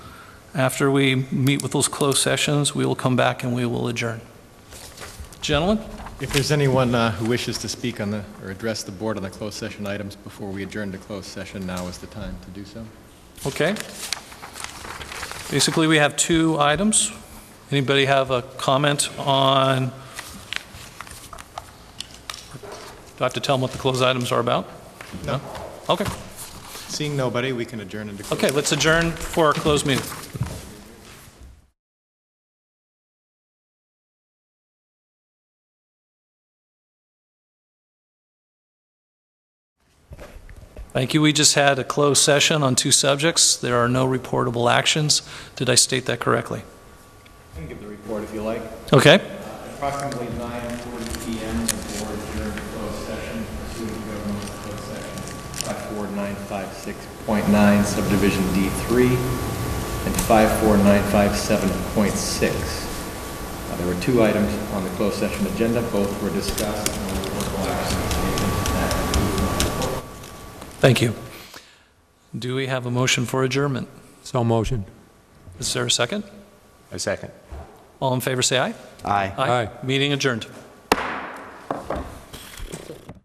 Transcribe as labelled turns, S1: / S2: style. S1: After we meet with those closed sessions, we will come back and we will adjourn. Gentlemen?
S2: If there's anyone uh, who wishes to speak on the, or address the board on the closed session items before we adjourn to closed session, now is the time to do so.
S1: Okay. Basically, we have two items. Anybody have a comment on? Do I have to tell them what the closed items are about?
S2: No.
S1: Okay,
S2: Seeing nobody, we can adjourn into closed.
S1: okay, let's adjourn for our closed meeting. Thank you. We just had a closed session on two subjects. There are no reportable actions. Did I state that correctly?
S3: I can give the report if you like.
S1: Okay.
S3: Approximately 9:40 PM, the board adjourned to closed session pursuant to government closed session 54956.9 subdivision D3 and 54957.6. Uh, There were two items on the closed session agenda, both were discussed, and there were no actions taken. That concludes my report.
S1: Thank you. Do we have a motion for adjournment?
S4: So motion.
S1: Is there a second?
S5: A second.
S1: All in favor, say aye.
S5: Aye.
S4: Aye.
S1: Meeting adjourned.